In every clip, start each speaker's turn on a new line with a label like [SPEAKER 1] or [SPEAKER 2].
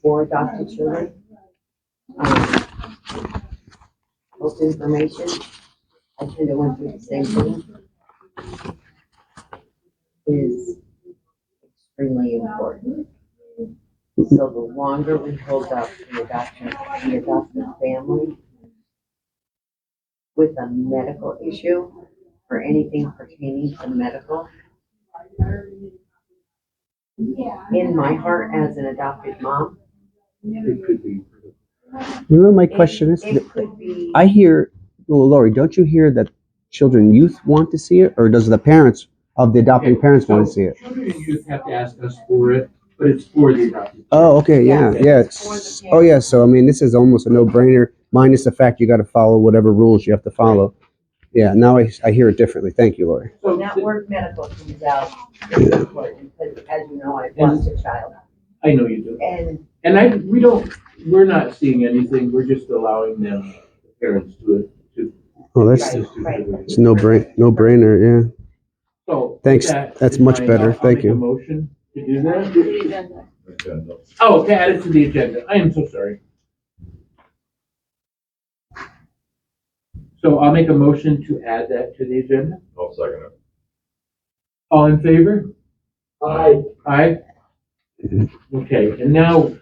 [SPEAKER 1] for adopted children. Um, Most information, I kind of went through the same thing. Is extremely important. So the longer we hold up the adoption, the adopted family with a medical issue, for anything pertaining to medical, in my heart as an adopted mom,
[SPEAKER 2] It could be.
[SPEAKER 3] You know, my
[SPEAKER 1] it-
[SPEAKER 3] question is,
[SPEAKER 1] It could be.
[SPEAKER 3] I hear, well, Lori, don't you hear that children, youth want to see it, or does the parents of the adopting parents want to see it?
[SPEAKER 2] Children and youth have to ask us for it, but it's for the adopted.
[SPEAKER 3] Oh, okay, yeah, yeah. Oh, yeah. So I mean, this is almost a no-brainer, minus the fact you got to follow whatever rules you have to follow. Yeah. Now I, I hear it differently. Thank you, Lori.
[SPEAKER 2] So
[SPEAKER 1] When that
[SPEAKER 2] th-
[SPEAKER 1] word medical comes out, it's important, because as you know, I lost a child.
[SPEAKER 2] I know you do.
[SPEAKER 1] And
[SPEAKER 2] And I, we don't, we're not seeing anything, we're just allowing them, the parents to, to.
[SPEAKER 3] Oh, that's
[SPEAKER 1] Right.
[SPEAKER 3] it's no brain, no-brainer. Yeah.
[SPEAKER 2] So. with
[SPEAKER 3] Thanks.
[SPEAKER 2] that
[SPEAKER 3] That's
[SPEAKER 2] in
[SPEAKER 3] much
[SPEAKER 2] mind,
[SPEAKER 3] better.
[SPEAKER 2] I'll- I'll
[SPEAKER 3] Thank
[SPEAKER 2] make
[SPEAKER 3] you.
[SPEAKER 2] a motion to do that. Oh, to add it to the agenda. I am so sorry. So I'll make a motion to add that to the agenda.
[SPEAKER 4] I'll second it.
[SPEAKER 2] All in favor?
[SPEAKER 4] Aye.
[SPEAKER 2] Aye? Okay, and now,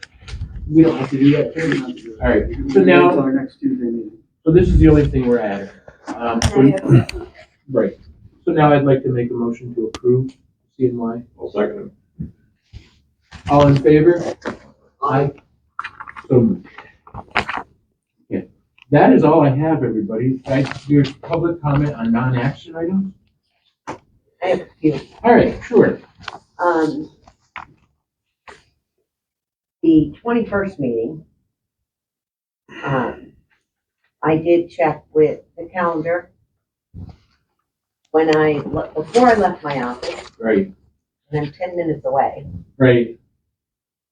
[SPEAKER 2] we don't have to do that. All right, so now-
[SPEAKER 5] Our next Tuesday meeting.
[SPEAKER 2] so this is the only thing we're adding. Um, so- Right, so now I'd like to make a motion to approve CNY.
[SPEAKER 4] I'll second
[SPEAKER 2] All in favor? Aye. So moved. Okay, that is all I have, everybody. I- There's public comment on non-action items?
[SPEAKER 1] I have a few,
[SPEAKER 2] All right, sure.
[SPEAKER 1] um, the twenty-first meeting, um, I did check with the calendar. When I, le- before I left my office,
[SPEAKER 2] Right,
[SPEAKER 1] and I'm ten minutes away,
[SPEAKER 2] right.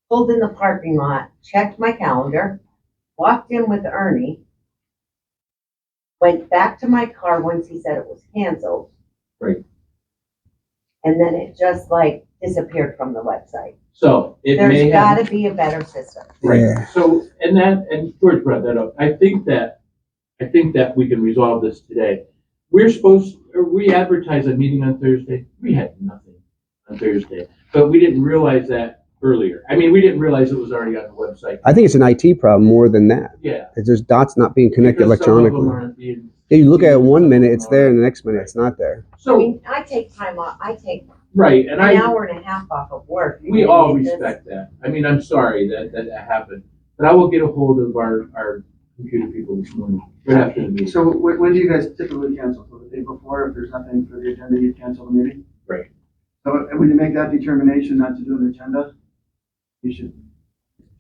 [SPEAKER 1] pulled in the parking lot, checked my calendar, walked in with Ernie, went back to my car once he said it was canceled.
[SPEAKER 2] Right.
[SPEAKER 1] And then it just like disappeared from the website.
[SPEAKER 2] So it may
[SPEAKER 1] There's
[SPEAKER 2] have.
[SPEAKER 1] gotta be a better system.
[SPEAKER 3] Yeah.
[SPEAKER 2] Right, so, and that, and George brought that up, I think that, I think that we can resolve this today. We're supposed, or we advertised a meeting on Thursday, we had nothing on Thursday, but we didn't realize that earlier. I mean, we didn't realize it was already on the website,
[SPEAKER 3] I think it's an IT problem more than that.
[SPEAKER 2] yeah.
[SPEAKER 3] It's just dots not being connected
[SPEAKER 2] because some of them
[SPEAKER 3] electronically.
[SPEAKER 2] aren't being-
[SPEAKER 3] Yeah, you look at it one minute, it's there, and the next minute, it's not there.
[SPEAKER 1] I
[SPEAKER 2] So,
[SPEAKER 1] mean, I take time off, I take
[SPEAKER 2] right, and
[SPEAKER 1] an
[SPEAKER 2] I,
[SPEAKER 1] hour and a half off of work.
[SPEAKER 2] we all
[SPEAKER 1] This-
[SPEAKER 2] respect that, I mean, I'm sorry that, that that happened, but I will get a hold of our, our computer people this morning, right after the meeting.
[SPEAKER 5] So when, when do you guys typically cancel? So the day before, if there's nothing for the agenda, you cancel the meeting?
[SPEAKER 2] Right.
[SPEAKER 5] So and when you make that determination not to do an agenda, you should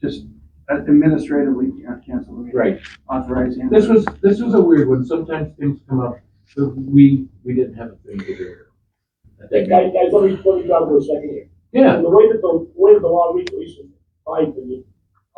[SPEAKER 5] just administratively can- cancel the meeting.
[SPEAKER 2] Right.
[SPEAKER 5] Authorize. the-
[SPEAKER 2] This was, this was a weird one, sometimes things come up, so we, we didn't have a thing to do. I think-
[SPEAKER 6] Guys, guys, let me, let me jump for a second here.
[SPEAKER 2] Yeah,
[SPEAKER 6] And the way that the, way that the law reads, at least in my opinion,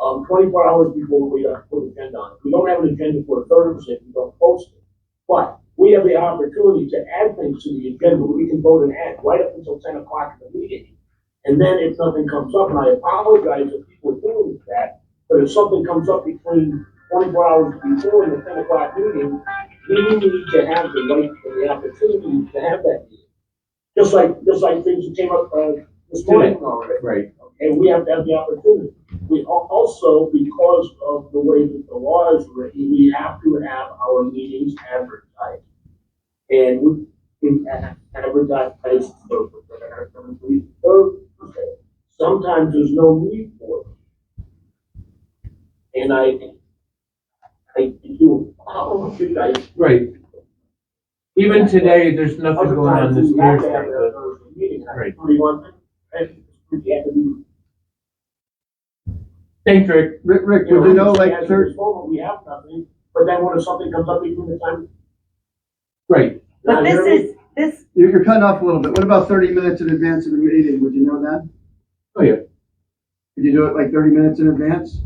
[SPEAKER 6] um, twenty-four hours before we have to put an agenda on. If We don't have an agenda for Thursday, we don't post it. But we have the opportunity to add things to the agenda, we can vote and add right up until ten o'clock in the meeting. And then if something comes up, and I apologize if people are doing that, but if something comes up between twenty-four hours before and the ten o'clock meeting, we need to have the right, and the opportunity to have that meeting. Just like, just like things that came up, uh, this morning already.
[SPEAKER 2] right,
[SPEAKER 6] And we have to have the opportunity. We al- also, because of the way that the law is written, we have to have our meetings advertised. And we, we a- advertise for, we, Thursday. Sometimes there's no need for it. And I, I do, oh, you guys,
[SPEAKER 2] right. Even today, there's nothing
[SPEAKER 6] other
[SPEAKER 2] going on
[SPEAKER 6] times
[SPEAKER 2] this
[SPEAKER 6] we have to have
[SPEAKER 2] Thursday.
[SPEAKER 6] a Thursday meeting.
[SPEAKER 2] Right.
[SPEAKER 6] Thirty-one, and we have to be
[SPEAKER 2] Thanks, Rick. Rick, Rick,
[SPEAKER 6] You
[SPEAKER 2] would you know,
[SPEAKER 6] know,
[SPEAKER 2] like,
[SPEAKER 6] as a
[SPEAKER 2] thir-
[SPEAKER 6] result, we have nothing, but then when something comes up between the time.
[SPEAKER 2] right,
[SPEAKER 1] But this is, this,
[SPEAKER 5] You're, you're cutting off a little bit. What about thirty minutes in advance of the meeting? Would you know that?
[SPEAKER 2] oh, yeah,
[SPEAKER 5] Could you do it like thirty minutes in advance?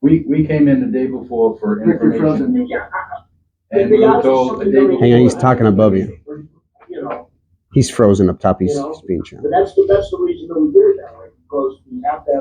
[SPEAKER 7] We, we came in the day before for
[SPEAKER 5] Rick, you're
[SPEAKER 7] information.
[SPEAKER 5] frozen.
[SPEAKER 6] Yeah, I- I-
[SPEAKER 7] And we were told the
[SPEAKER 6] something
[SPEAKER 7] day
[SPEAKER 6] that we-
[SPEAKER 7] before.
[SPEAKER 3] Hang on, he's talking above you.
[SPEAKER 6] You know,
[SPEAKER 3] He's frozen up top. He's,
[SPEAKER 6] You know?
[SPEAKER 3] he's being shown.
[SPEAKER 6] but that's the, that's the reason that we do it that way, because we have to have